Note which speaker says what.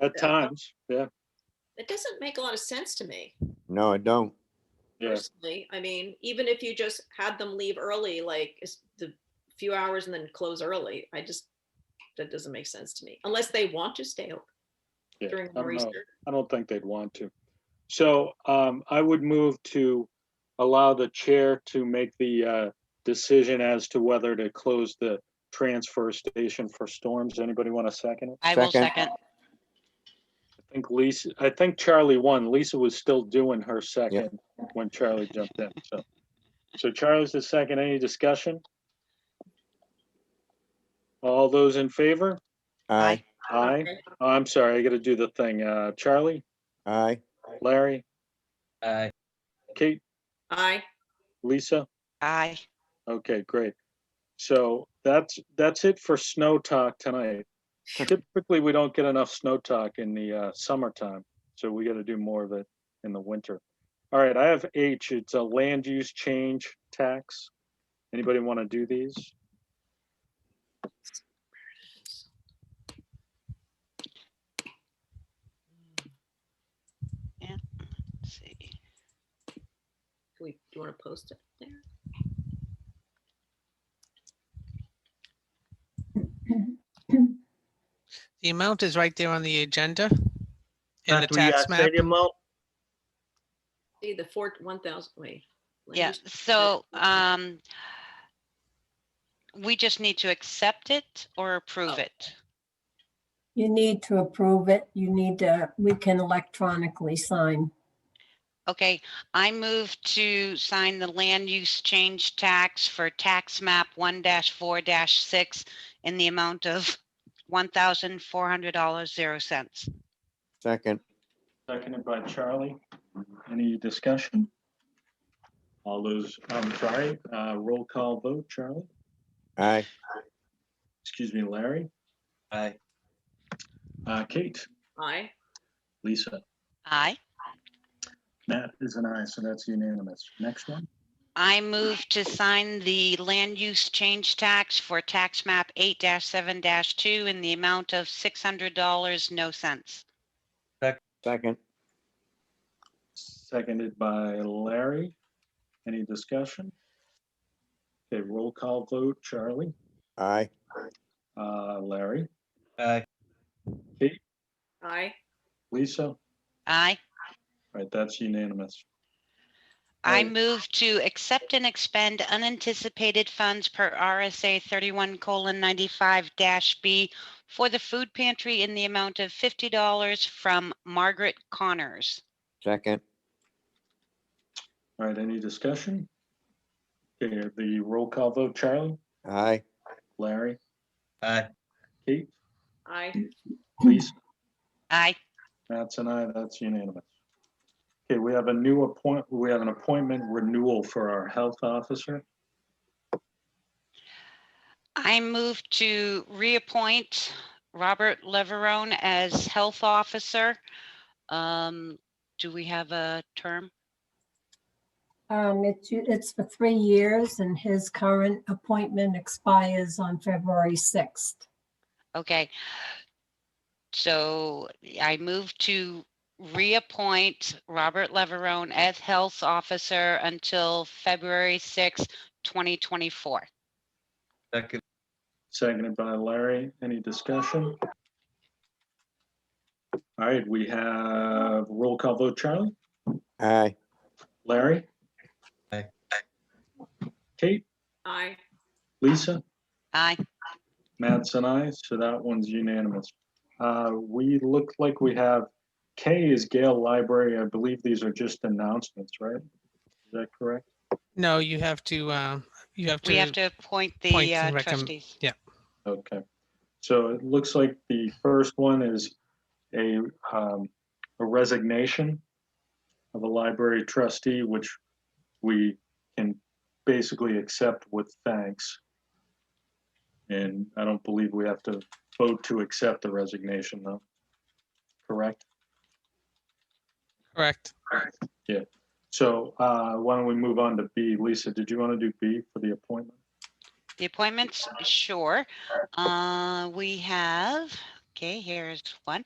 Speaker 1: At times, yeah,
Speaker 2: That doesn't make a lot of sense to me
Speaker 3: No, I don't.
Speaker 1: yeah.
Speaker 2: personally. I mean, even if you just had them leave early, like is the few hours and then close early, I just, that doesn't make sense to me, unless they want to stay open
Speaker 1: yeah.
Speaker 2: during
Speaker 1: I
Speaker 2: more
Speaker 1: don't know.
Speaker 2: Easter.
Speaker 1: I don't think they'd want to. So um, I would move to allow the chair to make the uh, decision as to whether to close the transfer station for storms. Anybody want to second it?
Speaker 4: I will
Speaker 3: Second.
Speaker 4: second.
Speaker 1: I think Lisa, I think Charlie won. Lisa was still doing her second when Charlie jumped in, so. So Charlie's the second. Any discussion? All those in favor?
Speaker 3: Aye,
Speaker 1: Aye.
Speaker 2: Okay.
Speaker 1: Oh, I'm sorry, I gotta do the thing. Uh, Charlie,
Speaker 3: aye,
Speaker 1: Larry,
Speaker 5: Aye.
Speaker 1: Kate,
Speaker 2: Aye,
Speaker 1: Lisa?
Speaker 4: Aye.
Speaker 1: Okay, great. So that's, that's it for snow talk tonight. Typically, we don't get enough snow talk in the uh, summertime, so we gotta do more of it in the winter. All right, I have H, it's a land use change tax. Anybody wanna do these?
Speaker 4: Let's see.
Speaker 2: Can we, do you want to post it there?
Speaker 6: The amount is right there on the agenda. In the
Speaker 7: That we are
Speaker 6: tax map.
Speaker 7: stadium out.
Speaker 2: See the four, one thousand, wait. land
Speaker 4: Yeah,
Speaker 2: use-
Speaker 4: so, um, we just need to accept it or approve
Speaker 2: Oh.
Speaker 4: it.
Speaker 8: You need to approve it. You need to, we can electronically sign.
Speaker 4: Okay, I move to sign the land use change tax for tax map one four six in the amount of one thousand four hundred dollars, zero cents.
Speaker 3: second,
Speaker 1: Seconded by Charlie. Any discussion? All those, I'm sorry, uh, roll call vote, Charlie,
Speaker 3: aye,
Speaker 1: excuse me, Larry,
Speaker 5: Aye.
Speaker 1: uh, Kate,
Speaker 2: Aye,
Speaker 1: Lisa.
Speaker 4: Aye.
Speaker 1: That is an aye, so that's unanimous. Next one.
Speaker 4: I move to sign the land use change tax for tax map eight seven two in the amount of six hundred dollars, no cents.
Speaker 3: second,
Speaker 1: Seconded by Larry. Any discussion? Okay, roll call vote, Charlie,
Speaker 3: aye,
Speaker 1: uh, Larry,
Speaker 5: Aye.
Speaker 2: aye,
Speaker 1: Lisa. All
Speaker 4: Aye.
Speaker 1: right, that's unanimous.
Speaker 4: I
Speaker 1: Right.
Speaker 4: move to accept and expend unanticipated funds per RSA thirty-one colon ninety-five dash B for the food pantry in the amount of fifty dollars from Margaret Connors.
Speaker 3: second,
Speaker 1: All right, any discussion? Okay, the roll call vote, Charlie,
Speaker 3: aye,
Speaker 1: Larry,
Speaker 5: Aye.
Speaker 1: Kate,
Speaker 2: aye,
Speaker 1: Lisa.
Speaker 4: Aye.
Speaker 1: That's an aye, that's unanimous. Okay, we have a new appoint, we have an appointment renewal for our health officer.
Speaker 4: I move to reappoint Robert Leverone as health officer. Um, do we have a term?
Speaker 8: Um, it's, it's for three years and his current appointment expires on February 6th.
Speaker 4: Okay. So I move to reappoint Robert Leverone as Health Officer until February sixth, twenty twenty-four.
Speaker 5: Second.
Speaker 1: Seconded by Larry. Any discussion? All right, we have roll call vote. Charlie,
Speaker 3: aye,
Speaker 1: Larry?
Speaker 5: Aye.
Speaker 1: Kate,
Speaker 2: aye,
Speaker 1: Lisa,
Speaker 4: Aye.
Speaker 1: Matt's and I, so that one's unanimous. Uh, we look like we have, K is Gale Library. I believe these are just announcements, right? Is that correct?
Speaker 6: No, you have to, uh, you have
Speaker 4: We have
Speaker 6: to,
Speaker 4: to appoint
Speaker 6: Appoint
Speaker 4: the uh,
Speaker 6: and recommend-
Speaker 4: trustees.
Speaker 1: Okay, so it looks like the first one is a, um, a resignation of a library trustee, which we can basically accept with thanks. And I don't believe we have to vote to accept the resignation though. Correct?
Speaker 6: correct.
Speaker 1: So, uh, why don't we move on to B? Lisa, did you want to do B for the appointment?
Speaker 4: The appointments, sure. Uh, we have, okay, here's one.